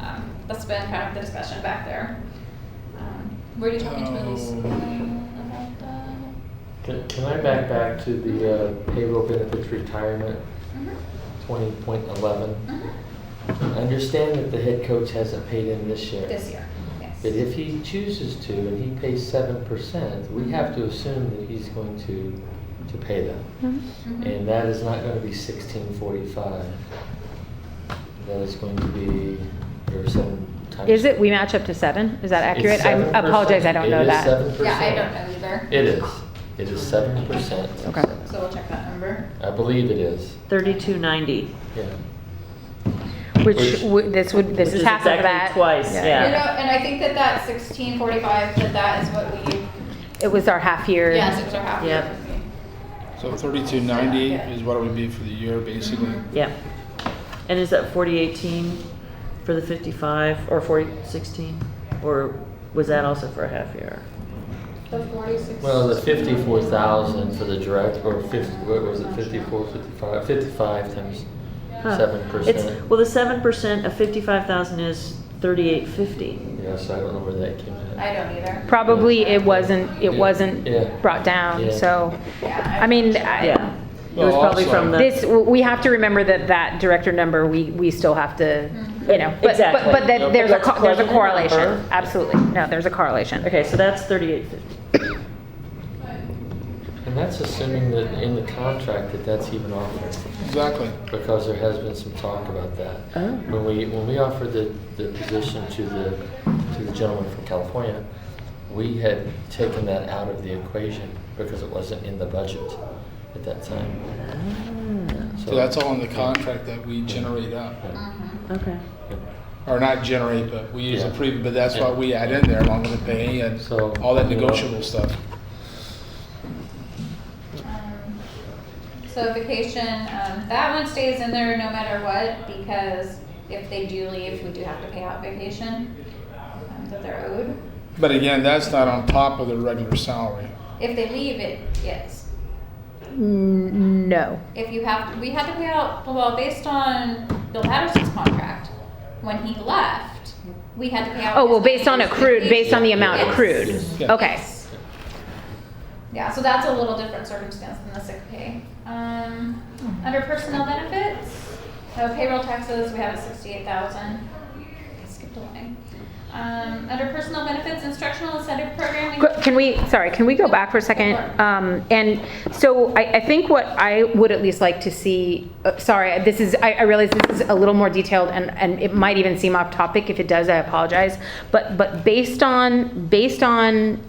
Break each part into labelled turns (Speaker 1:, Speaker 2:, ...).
Speaker 1: Um, that's been kind of the discussion back there. Um, Were you talking to Elise
Speaker 2: Oh.
Speaker 1: about that?
Speaker 3: Can, can I back back to the uh, payroll benefits retirement
Speaker 1: Mhm,
Speaker 3: twenty point eleven?
Speaker 1: mhm.
Speaker 3: I
Speaker 4: Mm-hmm.
Speaker 3: understand that the head coach hasn't paid in this year.
Speaker 1: This year, yes.
Speaker 3: But if he chooses to and he pays seven percent, we have to assume that he's going to, to pay them.
Speaker 4: Mm-hmm.
Speaker 1: Mhm.
Speaker 3: And that is not gonna be sixteen forty-five. That is going to be, or seven times.
Speaker 4: Is it, we match up to seven? Is that accurate? I apologize, I don't know
Speaker 3: It
Speaker 4: that.
Speaker 3: is 7%.
Speaker 1: Yeah, I don't know either,
Speaker 3: It is. It is seven percent.
Speaker 4: Okay.
Speaker 1: so we'll check that number.
Speaker 3: I believe it is,
Speaker 5: Thirty-two ninety.
Speaker 3: yeah.
Speaker 4: Which,
Speaker 3: Which-
Speaker 4: would- this would, this is
Speaker 5: Which is
Speaker 4: half of
Speaker 5: exactly
Speaker 4: that.
Speaker 5: twice, yeah.
Speaker 1: You know, and I think that that sixteen forty-five, that that is what we,
Speaker 4: It was our half year.
Speaker 1: yes, it was our half year.
Speaker 5: Yep.
Speaker 2: So thirty-two ninety
Speaker 1: Yeah.
Speaker 2: is what it would be for the year, basically.
Speaker 1: Mhm.
Speaker 5: Yeah. And is that forty eighteen for the fifty-five or forty sixteen? Or was that also for a half year?
Speaker 1: The forty-six.
Speaker 3: Well, the fifty-four thousand for the direct, or fifty, what was it, fifty-four, fifty-five, fifty-five times
Speaker 5: Huh.
Speaker 3: seven
Speaker 5: It's,
Speaker 3: percent?
Speaker 5: well, the seven percent of fifty-five thousand is thirty-eight fifty.
Speaker 3: Yeah, so I don't know where that came in.
Speaker 1: I don't either.
Speaker 4: Probably it wasn't, it
Speaker 3: Yeah. Yeah.
Speaker 4: wasn't brought down,
Speaker 3: Yeah.
Speaker 4: so,
Speaker 1: Yeah,
Speaker 4: I mean, I-
Speaker 5: Yeah. It was
Speaker 2: Well,
Speaker 5: probably
Speaker 2: also-
Speaker 5: from the,
Speaker 4: this, we have to remember that that director number, we, we still have to, you know, but, but,
Speaker 5: Exactly.
Speaker 4: but
Speaker 3: Yeah,
Speaker 4: that
Speaker 3: but
Speaker 4: there's a,
Speaker 5: let's
Speaker 4: co- there's a
Speaker 5: plug in the
Speaker 4: correlation.
Speaker 5: number.
Speaker 4: Absolutely, no, there's a correlation.
Speaker 5: okay, so that's thirty-eight fifty.
Speaker 3: And that's assuming that in the contract that that's even offered,
Speaker 2: Exactly.
Speaker 3: because there has been some talk about that.
Speaker 5: Oh.
Speaker 3: When we, when we offered the, the position to the, to the gentleman from California, we had taken that out of the equation because it wasn't in the budget at that time.
Speaker 5: Ah.
Speaker 2: So that's all in the contract that we generate up,
Speaker 5: Okay.
Speaker 2: or not generate, but we use a
Speaker 3: Yeah.
Speaker 2: pre, but that's what we add in there along with the pay and
Speaker 3: So,
Speaker 2: all that
Speaker 3: you know.
Speaker 2: negotiable stuff.
Speaker 1: Um, So vacation, um, that one stays in there no matter what, because if they do leave, we do have to pay out vacation um, that they're owed.
Speaker 2: But again, that's not on top of the regular salary.
Speaker 1: If they leave, it is.
Speaker 4: N- No,
Speaker 1: If you have, we had to pay out, well, based on Bill Patterson's contract, when he left, we had to pay out.
Speaker 4: oh, well, based on accrued, based on the amount
Speaker 1: Yes.
Speaker 4: accrued,
Speaker 3: Yes.
Speaker 2: Yeah.
Speaker 4: okay.
Speaker 1: Yeah, so that's a little different circumstance than the sick pay. Um,
Speaker 4: Hmm.
Speaker 1: under personnel benefits, so payroll taxes, we have a sixty-eight thousand. I skipped a line. Um, under personnel benefits, instructional incentive programming.
Speaker 4: Qu- Can we, sorry, can we go back for a second?
Speaker 1: Sure.
Speaker 4: Um, And so I, I think what I would at least like to see, uh, sorry, this is, I, I realize this is a little more detailed and, and it might even seem off topic. If it does, I apologize. But, but based on, based on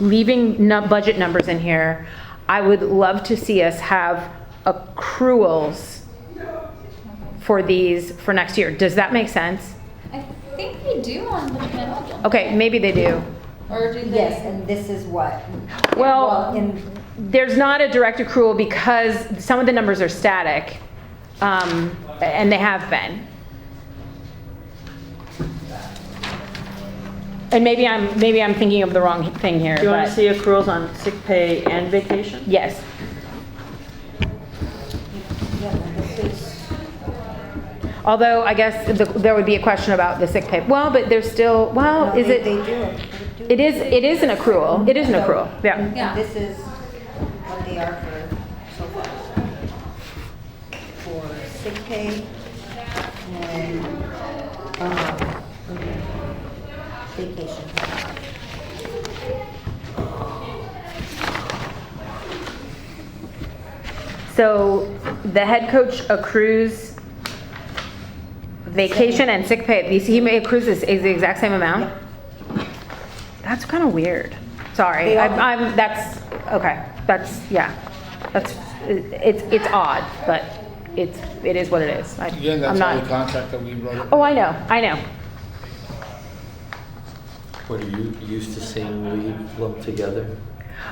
Speaker 4: leaving nu- budget numbers in here, I would love to see us have accruals for these, for next year. Does that make sense?
Speaker 1: I think they do on the middle.
Speaker 4: Okay, maybe they do.
Speaker 1: Or do they?
Speaker 6: Yes, and this is what?
Speaker 4: Well-
Speaker 6: in-
Speaker 4: there's not a direct accrual because some of the numbers are static, um, and they have been. And maybe I'm, maybe I'm thinking of the wrong thing here,
Speaker 5: Do you want to
Speaker 4: but,
Speaker 5: see accruals on sick pay and vacation?
Speaker 4: yes.
Speaker 6: yeah, this is-
Speaker 4: Although, I guess the- there would be a question about the sick pay. Well, but there's still,
Speaker 6: no,
Speaker 4: well, is
Speaker 6: they- They
Speaker 4: it,
Speaker 6: do it. They do
Speaker 4: it is, it is an accrual, it is an accrual, yeah.
Speaker 1: Yeah.
Speaker 6: And this is what they are for so far. For sick pay and, um, vacation.
Speaker 4: So the head coach accrues vacation and sick pay. These- He may accrues this, is the exact same amount? That's kind of weird. Sorry,
Speaker 6: They
Speaker 4: I'm,
Speaker 6: are.
Speaker 4: I'm, that's, okay, that's, yeah. That's, it's, it's odd, but it's, it is what it is. I-
Speaker 2: Again,
Speaker 4: I'm
Speaker 2: that's all the
Speaker 4: not,
Speaker 2: contract that we wrote up.
Speaker 4: oh, I know, I know.
Speaker 3: What are you used to seeing leave lumped together?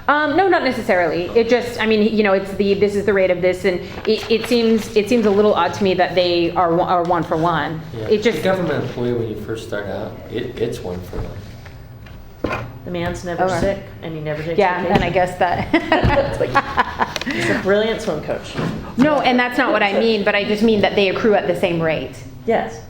Speaker 4: Um, no, not necessarily. It just, I mean, you know, it's the, this is the rate of this, and it, it seems, it seems a little odd to me that they are, one- are one for one.
Speaker 3: Yeah.
Speaker 4: It just,
Speaker 3: a government employee when you first start out, it, it's one for one.
Speaker 5: The man's never
Speaker 4: Okay.
Speaker 5: sick and he never takes
Speaker 4: Yeah,
Speaker 5: vacation.
Speaker 4: and I guess
Speaker 5: It's a
Speaker 4: that.
Speaker 5: brilliant swim coach.
Speaker 4: No, and that's not what I mean, but I just mean that they accrue at the same rate.
Speaker 5: Yes.